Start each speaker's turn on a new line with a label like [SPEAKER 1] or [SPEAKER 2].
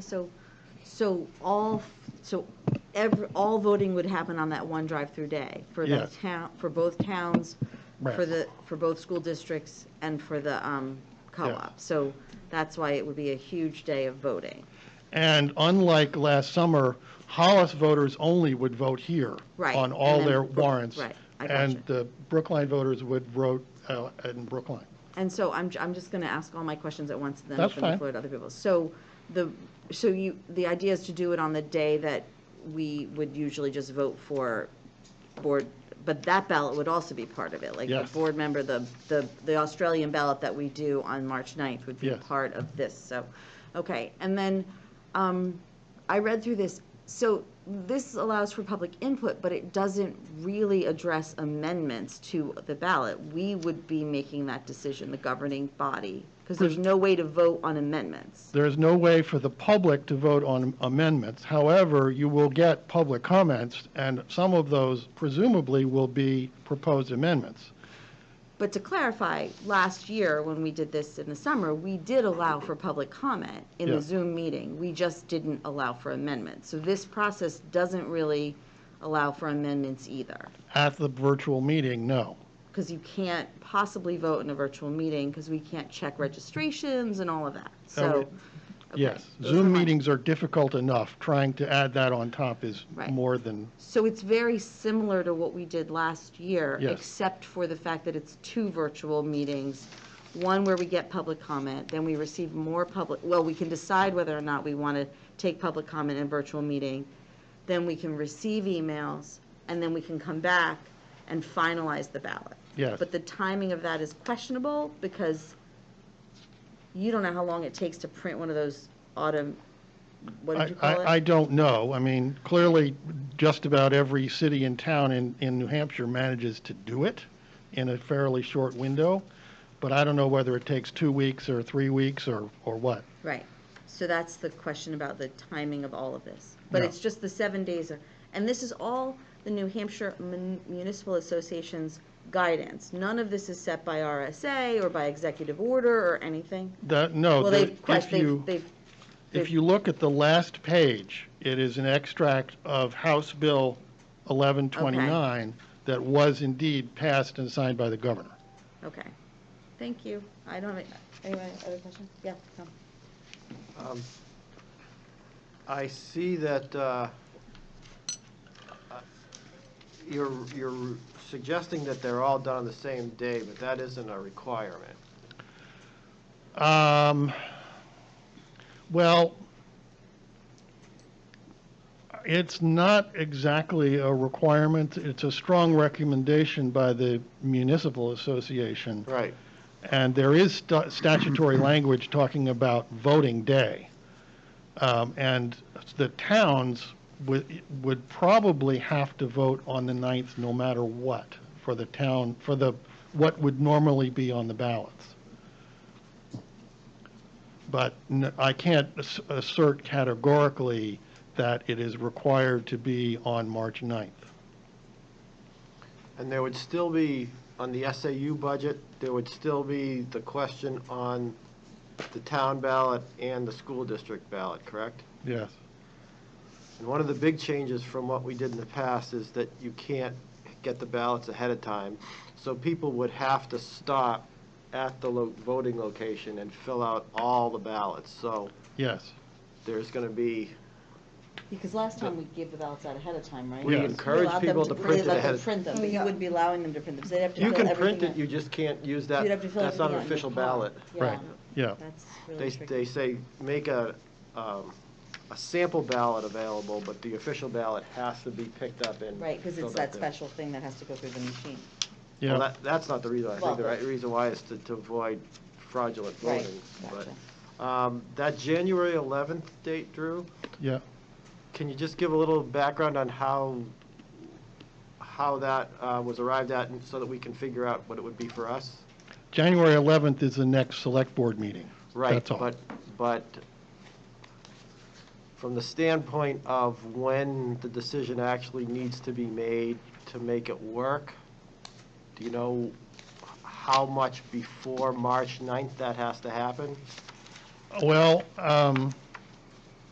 [SPEAKER 1] So, so all, so every, all voting would happen on that one drive-through day for
[SPEAKER 2] Yeah.
[SPEAKER 1] the town, for both towns, for
[SPEAKER 2] Right.
[SPEAKER 1] the, for both school districts and for the um, co-op. So that's why it would be a huge day of voting.
[SPEAKER 2] And unlike last summer, Hollis voters only would vote here
[SPEAKER 1] Right,
[SPEAKER 2] on all
[SPEAKER 1] and then
[SPEAKER 2] their
[SPEAKER 1] Brook-
[SPEAKER 2] warrants.
[SPEAKER 1] right, I
[SPEAKER 2] And
[SPEAKER 1] gotcha.
[SPEAKER 2] the Brookline voters would vote uh, in Brookline.
[SPEAKER 1] And so I'm, I'm just going to ask all my questions at once, and then
[SPEAKER 2] That's
[SPEAKER 1] open the
[SPEAKER 2] fine.
[SPEAKER 1] floor to other people. So the, so you, the idea is to do it on the day that we would usually just vote for board, but that ballot would also be part of it? Like the
[SPEAKER 2] Yes.
[SPEAKER 1] board member, the, the, the Australian ballot that we do on March 9th would be
[SPEAKER 2] Yes.
[SPEAKER 1] part of this, so, okay. And then, um, I read through this, so this allows for public input, but it doesn't really address amendments to the ballot. We would be making that decision, the governing body, because there's no way to vote on amendments.
[SPEAKER 2] There is no way for the public to vote on amendments. However, you will get public comments, and some of those presumably will be proposed amendments.
[SPEAKER 1] But to clarify, last year, when we did this in the summer, we did allow for public comment in
[SPEAKER 2] Yeah.
[SPEAKER 1] the Zoom meeting. We just didn't allow for amendments. So this process doesn't really allow for amendments either,
[SPEAKER 2] At the virtual meeting, no.
[SPEAKER 1] because you can't possibly vote in a virtual meeting, because we can't check registrations and all of that, so.
[SPEAKER 2] Oh, Okay. Yes,
[SPEAKER 1] those are
[SPEAKER 2] Zoom
[SPEAKER 1] mine.
[SPEAKER 2] meetings are difficult enough. Trying to add that on top is
[SPEAKER 1] Right.
[SPEAKER 2] more than,
[SPEAKER 1] So it's very similar to what we did last year.
[SPEAKER 2] Yes.
[SPEAKER 1] Except for the fact that it's two virtual meetings, one where we get public comment, then we receive more public, well, we can decide whether or not we want to take public comment in a virtual meeting, then we can receive emails, and then we can come back and finalize the ballot.
[SPEAKER 2] yes.
[SPEAKER 1] But the timing of that is questionable because you don't know how long it takes to print one of those autumn, what did
[SPEAKER 2] I,
[SPEAKER 1] you call it?
[SPEAKER 2] I, I don't know. I mean, clearly, just about every city and town in, in New Hampshire manages to do it in a fairly short window, but I don't know whether it takes two weeks or three weeks or, or what.
[SPEAKER 1] Right, so that's the question about the timing of all of this. But
[SPEAKER 2] Yeah.
[SPEAKER 1] it's just the seven days, of- and this is all the New Hampshire Mun- Municipal Association's guidance. None of this is set by RSA or by executive order or anything.
[SPEAKER 2] That, no,
[SPEAKER 1] Well,
[SPEAKER 2] the-
[SPEAKER 1] they've, ques-
[SPEAKER 2] Oh, if you,
[SPEAKER 1] they've, they've,
[SPEAKER 2] if you look at the last page, it is an extract of House Bill 1129 that was indeed passed and signed by the governor.
[SPEAKER 1] okay, thank you. I don't have, any- anyone, other questions? Yeah, no.
[SPEAKER 3] Um, I see that uh, uh, you're, you're suggesting that they're all done on the same day, but that isn't a requirement.
[SPEAKER 2] Um, well, it's not exactly a requirement. It's a strong recommendation by the municipal association.
[SPEAKER 3] Right.
[SPEAKER 2] And there is stu- statutory language talking about voting day. Um, and the towns would, would probably have to vote on the 9th no matter what for the town, for the, what would normally be on the ballots. But n- I can't ass- assert categorically that it is required to be on March 9th.
[SPEAKER 3] And there would still be, on the SAU budget, there would still be the question on the town ballot and the school district ballot, correct?
[SPEAKER 2] Yes.
[SPEAKER 3] And one of the big changes from what we did in the past is that you can't get the ballots ahead of time. So people would have to stop at the lo- voting location and fill out all the ballots. So
[SPEAKER 2] Yes.
[SPEAKER 3] there's going to be,
[SPEAKER 1] Because last time we gave the ballots out ahead of time, right?
[SPEAKER 3] we
[SPEAKER 2] Yes.
[SPEAKER 3] encourage
[SPEAKER 1] allowed them
[SPEAKER 3] people to
[SPEAKER 1] we
[SPEAKER 3] print it
[SPEAKER 1] let them
[SPEAKER 3] ahead of.
[SPEAKER 1] Print them, but you wouldn't be allowing them to print them, so they'd have to
[SPEAKER 3] You
[SPEAKER 1] fill
[SPEAKER 3] can
[SPEAKER 1] everything
[SPEAKER 3] print it,
[SPEAKER 1] out.
[SPEAKER 3] you just can't use
[SPEAKER 1] You'd have to
[SPEAKER 3] that,
[SPEAKER 1] fill
[SPEAKER 3] that's not
[SPEAKER 1] everything out in
[SPEAKER 3] an
[SPEAKER 1] your
[SPEAKER 3] official
[SPEAKER 1] car.
[SPEAKER 3] ballot.
[SPEAKER 2] Right.
[SPEAKER 1] Yeah.
[SPEAKER 2] Yeah.
[SPEAKER 1] That's
[SPEAKER 3] They,
[SPEAKER 1] really tricky.
[SPEAKER 3] they say, make a, um, a sample ballot available, but the official ballot has to be picked up and.
[SPEAKER 1] Right, because it's
[SPEAKER 3] filled
[SPEAKER 1] that
[SPEAKER 3] out there.
[SPEAKER 1] special thing that has to go through the machine.
[SPEAKER 3] Well,
[SPEAKER 2] Yeah.
[SPEAKER 3] that, that's not the reason, I
[SPEAKER 1] Well,
[SPEAKER 3] think the right reason why is to, to avoid fraudulent
[SPEAKER 1] Right,
[SPEAKER 3] voting.
[SPEAKER 1] gotcha.
[SPEAKER 3] But, um, that January eleventh date, Drew,
[SPEAKER 2] Yeah.
[SPEAKER 3] can you just give a little background on how, how that, uh, was arrived at, and so that we can figure out what it would be for us?
[SPEAKER 2] January 11th is the next select board meeting.
[SPEAKER 3] Right,
[SPEAKER 2] That's all.
[SPEAKER 3] but, but from the standpoint of when the decision actually needs to be made to make it work, do you know how much before March 9th that has to happen?
[SPEAKER 2] Well, um,